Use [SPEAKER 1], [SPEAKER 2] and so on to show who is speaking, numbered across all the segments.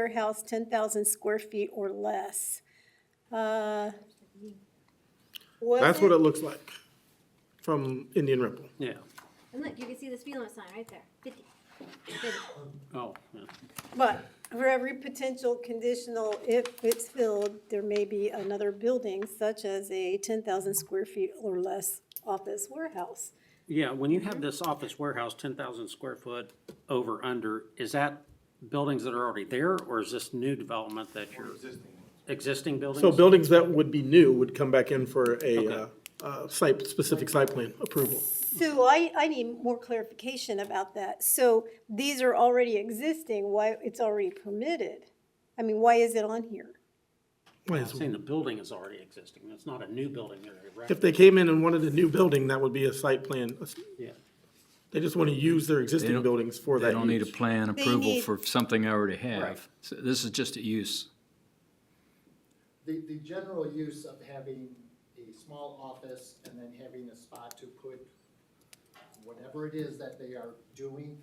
[SPEAKER 1] warehouse, ten thousand square feet or less. Uh, was
[SPEAKER 2] That's what
[SPEAKER 1] it-
[SPEAKER 2] it looks like from Indian Ripple.
[SPEAKER 3] Yeah,
[SPEAKER 4] And look, you can see the speed limit sign right there, fifty. 50.
[SPEAKER 3] oh, yeah.
[SPEAKER 1] But for every potential conditional, if it's filled, there may be another building such as a ten thousand square feet or less office warehouse.
[SPEAKER 3] Yeah, when you have this office warehouse, ten thousand square foot over, under, is that buildings that are already there, or is this new development that you're? Existing buildings?
[SPEAKER 2] So buildings that would be new would come back in for a, uh,
[SPEAKER 3] Okay.
[SPEAKER 2] uh, site, specific site plan approval.
[SPEAKER 1] So I, I need more clarification about that. So these are already existing, why it's already permitted? I mean, why is it on here?
[SPEAKER 2] Why
[SPEAKER 3] I'm
[SPEAKER 2] is-
[SPEAKER 3] saying the building is already existing, it's not a new building area, right?
[SPEAKER 2] If they came in and wanted a new building, that would be a site plan.
[SPEAKER 3] Yeah.
[SPEAKER 2] They just want to use their existing
[SPEAKER 5] don't-
[SPEAKER 2] buildings for that
[SPEAKER 5] They don't need a
[SPEAKER 2] use.
[SPEAKER 5] plan approval
[SPEAKER 1] need-
[SPEAKER 5] for something I already
[SPEAKER 3] Right.
[SPEAKER 5] have. So This is just a use.
[SPEAKER 6] The, the general use of having a small office and then having a spot to put whatever it is that they are doing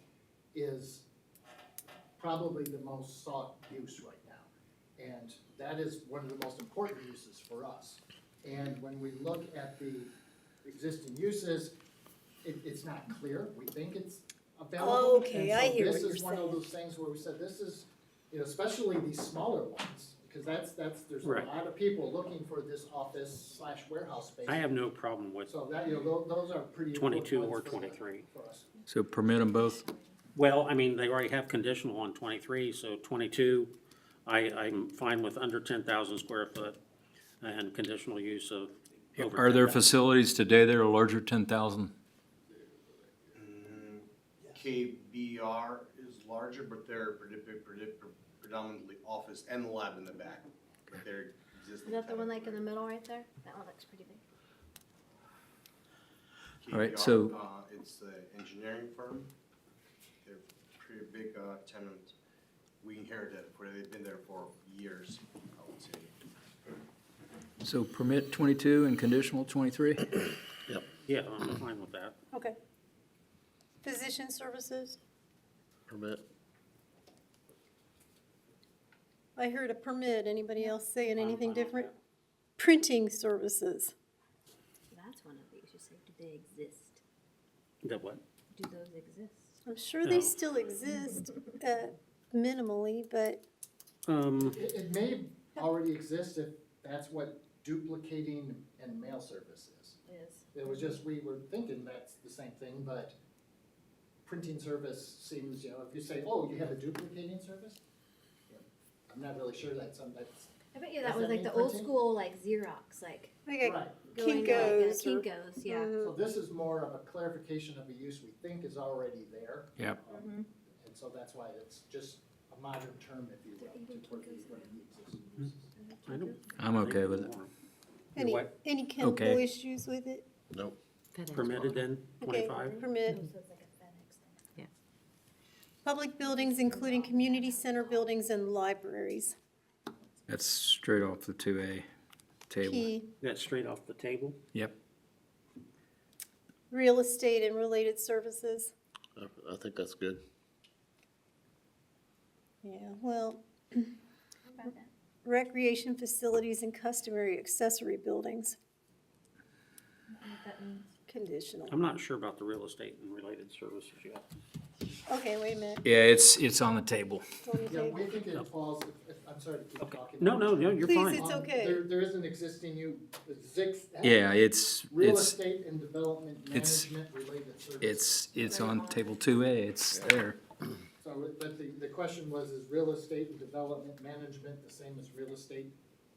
[SPEAKER 6] is probably the most sought use right now. And that is one of the most important uses for us. And when we look at the existing uses, it, it's not clear. We think it's available.
[SPEAKER 1] Okay, I hear what
[SPEAKER 6] And so
[SPEAKER 1] you're
[SPEAKER 6] this is one
[SPEAKER 1] saying.
[SPEAKER 6] of those things where we said, this is, you know, especially these smaller ones, because that's, that's, there's a
[SPEAKER 3] Right.
[SPEAKER 6] lot of people looking for this office slash warehouse space.
[SPEAKER 3] I have no problem with,
[SPEAKER 6] So that, you know, tho- those are pretty. important
[SPEAKER 3] 22
[SPEAKER 6] ones
[SPEAKER 3] or
[SPEAKER 6] for-
[SPEAKER 3] 23.
[SPEAKER 6] For us.
[SPEAKER 5] So permit them both.
[SPEAKER 3] well, I mean, they already have conditional on twenty-three, so twenty-two, I, I'm fine with under ten thousand square foot and conditional use of over.
[SPEAKER 5] Are there
[SPEAKER 3] 10,000.
[SPEAKER 5] facilities today that are larger ten thousand?
[SPEAKER 7] KBR is larger, but they're predip- predip- predominantly office and lab in the back. But they're existing.
[SPEAKER 4] Is that the one like in the middle right there? That one looks pretty big.
[SPEAKER 5] All right,
[SPEAKER 7] KBR,
[SPEAKER 5] so-
[SPEAKER 7] uh, It's an engineering firm. They're pretty big uh, tenant. We inherited, it, where they've been there for years, I would say.
[SPEAKER 5] So permit twenty-two and conditional twenty-three?
[SPEAKER 3] Yeah, I'm fine with that.
[SPEAKER 1] Okay. Physician services?
[SPEAKER 8] permit.
[SPEAKER 1] I heard a permit. Anybody else saying anything
[SPEAKER 3] fine with
[SPEAKER 1] different? Printing services.
[SPEAKER 4] That's one of these, you say, do they exist?
[SPEAKER 3] That what?
[SPEAKER 4] Do those exist?
[SPEAKER 1] I'm sure they
[SPEAKER 3] No.
[SPEAKER 1] still exist uh, minimally, but
[SPEAKER 3] Um,
[SPEAKER 6] It, it may already exist if that's what duplicating and mail service is.
[SPEAKER 4] Is.
[SPEAKER 6] It was just, we were thinking that's the same thing, but printing service seems, you know, if you say, oh, you have a duplicating service? Yeah, I'm not really sure that's, some- that's,
[SPEAKER 4] I bet you
[SPEAKER 6] Does
[SPEAKER 4] that was
[SPEAKER 6] that
[SPEAKER 4] like
[SPEAKER 6] mean
[SPEAKER 4] the old
[SPEAKER 6] printing?
[SPEAKER 4] school, like Xerox, like
[SPEAKER 1] like
[SPEAKER 6] right.
[SPEAKER 4] going to
[SPEAKER 1] Kinko's
[SPEAKER 4] like,
[SPEAKER 1] or- Mm.
[SPEAKER 4] Kinkos, yeah.
[SPEAKER 6] So this is more of a clarification of a use we think is already there.
[SPEAKER 5] Yep.
[SPEAKER 6] Um,
[SPEAKER 1] Mm-hmm.
[SPEAKER 6] And so that's why it's just a modern term, if you will, to where we run the existing uses.
[SPEAKER 3] I don't.
[SPEAKER 5] I'm okay with it.
[SPEAKER 1] any,
[SPEAKER 3] what?
[SPEAKER 1] any chemical
[SPEAKER 5] Okay.
[SPEAKER 1] issues with it?
[SPEAKER 3] Permitted then,
[SPEAKER 1] Okay,
[SPEAKER 3] twenty-five?
[SPEAKER 1] Permit.
[SPEAKER 9] Yeah.
[SPEAKER 1] Public buildings, including community center buildings and libraries.
[SPEAKER 5] That's straight off the two A table.
[SPEAKER 1] P,
[SPEAKER 3] That's straight off the table?
[SPEAKER 5] Yep.
[SPEAKER 1] real estate and related services.
[SPEAKER 8] I- I think that's good.
[SPEAKER 1] Yeah, well,
[SPEAKER 4] How about that?
[SPEAKER 1] recreation facilities and customary accessory buildings,
[SPEAKER 4] What that means?
[SPEAKER 1] conditional.
[SPEAKER 3] I'm not sure about the real estate and related services yet.
[SPEAKER 1] Okay, wait a minute.
[SPEAKER 5] Yeah, it's, it's on the table.
[SPEAKER 1] Don't we
[SPEAKER 6] Yeah,
[SPEAKER 1] take-
[SPEAKER 6] we think it falls, if- if- I'm sorry to keep
[SPEAKER 3] Okay,
[SPEAKER 6] talking.
[SPEAKER 3] no, no, no, you're
[SPEAKER 1] Please,
[SPEAKER 3] fine.
[SPEAKER 1] It's
[SPEAKER 6] Um,
[SPEAKER 1] okay.
[SPEAKER 6] There, there is an existing you, Zix.
[SPEAKER 5] Yeah, it's,
[SPEAKER 6] Real
[SPEAKER 5] it's,
[SPEAKER 6] estate and development
[SPEAKER 5] it's-
[SPEAKER 6] management related services.
[SPEAKER 5] it's, it's on table two A. It's there.
[SPEAKER 6] So, but the, the question was, is real estate and development management the same as real estate,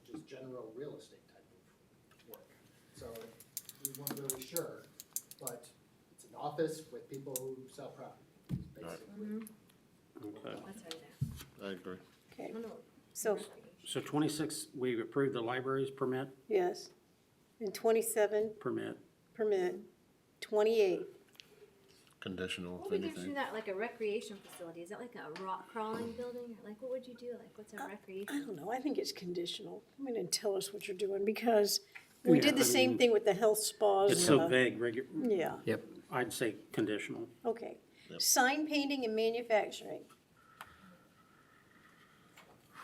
[SPEAKER 6] just general real estate type of work? So we weren't really sure, but it's an office with people who sell property, basically.
[SPEAKER 3] Okay.
[SPEAKER 4] That's right there.
[SPEAKER 8] I agree.
[SPEAKER 4] I
[SPEAKER 1] Okay,
[SPEAKER 4] wonder what-
[SPEAKER 1] so,
[SPEAKER 3] So twenty-six, we approved the libraries permit,
[SPEAKER 1] yes. And twenty-seven,
[SPEAKER 3] permit,
[SPEAKER 1] permit. Twenty-eight,
[SPEAKER 8] Conditional,
[SPEAKER 4] What
[SPEAKER 8] if
[SPEAKER 4] would you do
[SPEAKER 8] anything.
[SPEAKER 4] that, like a recreation facility? Is that like a rock crawling building? Or like, what would you do? Like, what's
[SPEAKER 1] Uh,
[SPEAKER 4] a
[SPEAKER 1] I
[SPEAKER 4] recreation?
[SPEAKER 1] don't know, I think it's conditional. I mean, and tell us what you're doing, because we
[SPEAKER 3] Yeah,
[SPEAKER 1] did the
[SPEAKER 3] I
[SPEAKER 1] same
[SPEAKER 3] mean,
[SPEAKER 1] thing with the health spas.
[SPEAKER 3] it's
[SPEAKER 1] and
[SPEAKER 3] so
[SPEAKER 1] the-
[SPEAKER 3] vague, regu-
[SPEAKER 1] Yeah,
[SPEAKER 5] Yep.
[SPEAKER 3] I'd say conditional.
[SPEAKER 1] okay. Sign painting and manufacturing,